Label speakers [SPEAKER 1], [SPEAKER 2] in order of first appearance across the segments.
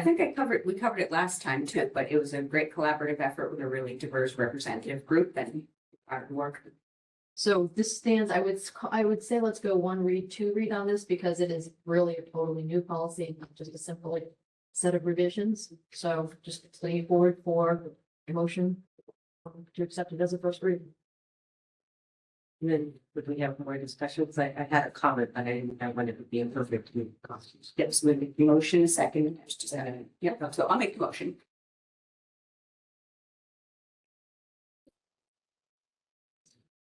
[SPEAKER 1] I think I covered, we covered it last time too, but it was a great collaborative effort with a really diverse representative group and our work.
[SPEAKER 2] So this stands, I would, s- ca- I would say let's go one read, two read on this because it is really a totally new policy, not just a simple like, set of revisions. So just lean forward for a motion um, to accept it as a first read.
[SPEAKER 3] And Then would we have more discussions? I, I had a comment, but I didn't know when it would be appropriate to make costumes.
[SPEAKER 1] Yes, we make the motion, second, there's just a- yeah, so I'll make the motion.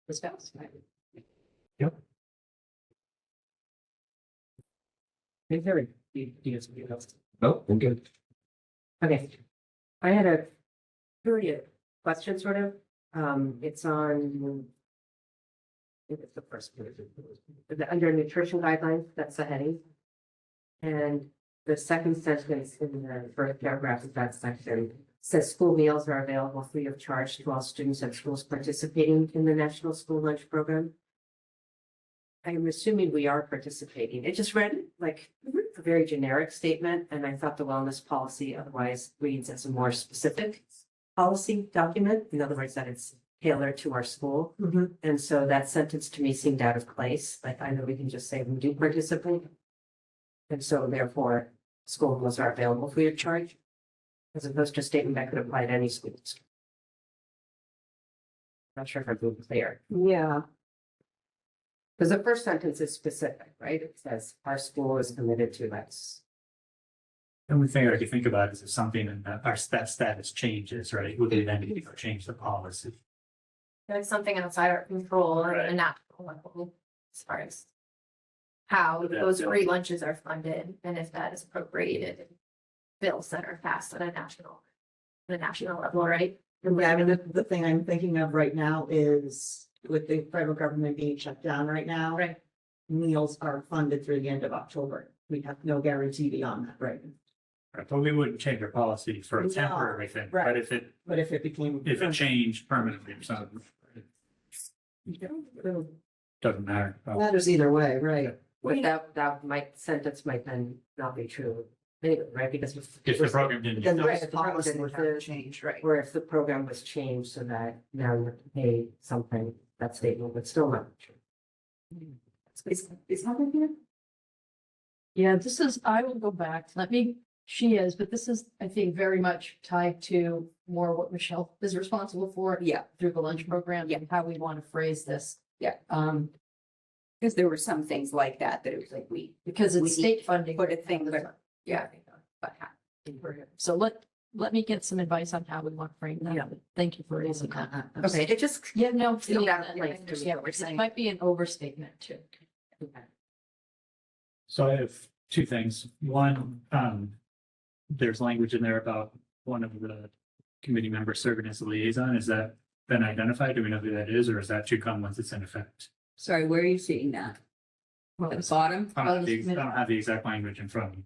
[SPEAKER 2] Ms. Faust?
[SPEAKER 3] Hey, Harry, you- you guys will be able to-
[SPEAKER 4] No, we're good.
[SPEAKER 3] Okay. I had a period question sort of, um, it's on. I think it's the first page. The, under nutrition guidelines, that's the heading. And the second sentence in the first paragraph of that section says school meals are available free of charge to all students at schools participating in the National School Lunch Program. I am assuming we are participating. It just read like a very generic statement, and I thought the wellness policy otherwise reads as a more specific policy document, in other words, that it's tailored to our school. And so that sentence to me seemed out of place, like I know we can just say we do participate. And so therefore, school meals are available free of charge. As opposed to a statement that could apply to any schools. Not sure if I'm being clear.
[SPEAKER 1] Yeah.
[SPEAKER 3] Because the first sentence is specific, right? It says, our school is committed to this.
[SPEAKER 5] The only thing I could think about is if something in that, our staff status changes, right? Would they then need to go change the policy?
[SPEAKER 2] That's something outside our control
[SPEAKER 5] Right.
[SPEAKER 2] and not level as far as how
[SPEAKER 5] But that
[SPEAKER 2] those
[SPEAKER 5] bill-
[SPEAKER 2] free lunches are funded and if that is appropriated. in Bills that are passed at a national, at a national level, right?
[SPEAKER 6] Yeah, I mean, the, the thing I'm thinking of right now is with the federal government being shut down right now.
[SPEAKER 2] Right.
[SPEAKER 6] Meals are funded through the end of October. We have no guarantee beyond that, right?
[SPEAKER 5] Right, But we wouldn't change our policy for a
[SPEAKER 6] No,
[SPEAKER 5] temporary thing,
[SPEAKER 6] right. Mm-hmm.
[SPEAKER 5] but if it,
[SPEAKER 6] But if it became.
[SPEAKER 5] if it changed permanently or something, it doesn't matter. Oh,
[SPEAKER 6] Matters either way, right?
[SPEAKER 3] But that, that might, sentence might then not be true anyway, right? Because. if-
[SPEAKER 5] If the program didn't.
[SPEAKER 6] Then the
[SPEAKER 3] Right,
[SPEAKER 6] rest
[SPEAKER 3] the
[SPEAKER 6] of the policy
[SPEAKER 3] program
[SPEAKER 6] would have
[SPEAKER 3] didn't
[SPEAKER 6] to change, right?
[SPEAKER 3] Or if the program was changed so that now you have to pay something, that statement would still not be true.
[SPEAKER 1] Is, is that here?
[SPEAKER 2] Yeah, this is, I will go back, let me, she is, but this is, I think, very much tied to more what Michelle is responsible for
[SPEAKER 1] Yeah,
[SPEAKER 2] through the lunch program
[SPEAKER 1] Yeah.
[SPEAKER 2] and how we want to phrase this.
[SPEAKER 1] Yeah.
[SPEAKER 2] Um,
[SPEAKER 1] because there were some things like that, that it was like we,
[SPEAKER 2] because
[SPEAKER 1] We
[SPEAKER 2] it's state funding.
[SPEAKER 1] put a thing, but- yeah. But
[SPEAKER 2] So let, let me get some advice on how we want to frame that. Thank you for raising that.
[SPEAKER 3] Okay, it just.
[SPEAKER 2] Yeah, no.
[SPEAKER 3] You don't
[SPEAKER 2] yeah,
[SPEAKER 3] have to
[SPEAKER 2] I
[SPEAKER 3] like do
[SPEAKER 2] understand.
[SPEAKER 3] what we're
[SPEAKER 2] It
[SPEAKER 3] saying.
[SPEAKER 2] might be an overstatement too.
[SPEAKER 5] So I have two things. One, um, there's language in there about one of the committee members serving as a liaison. Is that been identified? Do we know who that is, or is that to come once it's in effect?
[SPEAKER 1] Sorry, where are you seeing that? At the bottom?
[SPEAKER 5] I don't have the-
[SPEAKER 2] Oh, this
[SPEAKER 5] I don't have the exact language in front of me.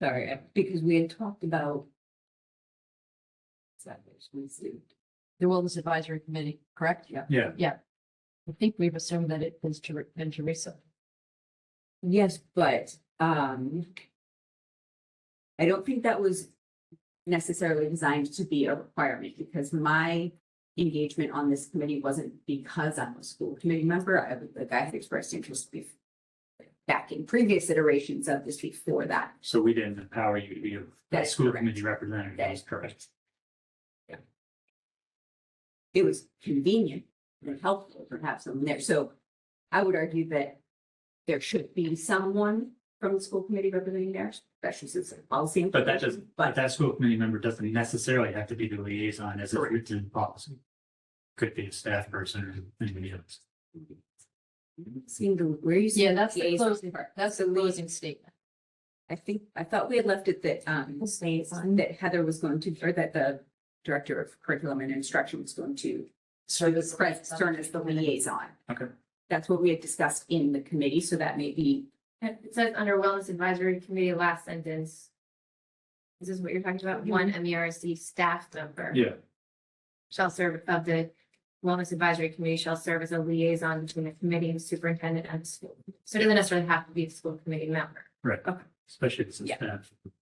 [SPEAKER 1] Sorry, I- because we had talked about. Exactly, we see.
[SPEAKER 2] The Wellness Advisory Committee, correct?
[SPEAKER 1] Yeah.
[SPEAKER 5] Yeah,
[SPEAKER 2] I think we've assumed that it is Ter- been Teresa.
[SPEAKER 1] Yes, but, um. I don't think that was necessarily designed to be a requirement because my engagement on this committee wasn't because I'm a school committee member. I, the guy had expressed interest bef- back in previous iterations of this before that.
[SPEAKER 5] So we didn't empower you to be a-
[SPEAKER 1] That
[SPEAKER 5] a
[SPEAKER 1] is
[SPEAKER 5] school
[SPEAKER 1] correct.
[SPEAKER 5] committee representative,
[SPEAKER 1] That
[SPEAKER 5] that
[SPEAKER 1] is
[SPEAKER 5] is correct.
[SPEAKER 1] It was convenient and helpful to have someone there. So I would argue that there should be someone from the school committee representing there, especially since it's a policy.
[SPEAKER 5] But that
[SPEAKER 1] information,
[SPEAKER 5] doesn't,
[SPEAKER 1] But
[SPEAKER 5] but that school committee member doesn't necessarily have to be the liaison as it's
[SPEAKER 1] Correct.
[SPEAKER 5] written in policy. Could be a staff person or anybody else.
[SPEAKER 1] Seem to, where you.
[SPEAKER 2] Yeah, that's the
[SPEAKER 1] Liaison.
[SPEAKER 2] closing part. That's the
[SPEAKER 1] So we-
[SPEAKER 2] closing statement.
[SPEAKER 1] I think, I thought we had left it that, um, that Heather was going to, or that the Director of Curriculum and Instruction was going to
[SPEAKER 2] So this
[SPEAKER 1] Fred Stern as the liaison.
[SPEAKER 5] Okay.
[SPEAKER 1] That's what we had discussed in the committee, so that may be,
[SPEAKER 7] It says under Wellness Advisory Committee, last sentence. This is what you're talking about, one M E R C staff member
[SPEAKER 5] Yeah.
[SPEAKER 7] shall serve of the Wellness Advisory Committee shall serve as a liaison between the committee and superintendent and the school. So it doesn't necessarily have to be a school committee member.
[SPEAKER 5] especially if it's a
[SPEAKER 1] Yeah.
[SPEAKER 5] staff.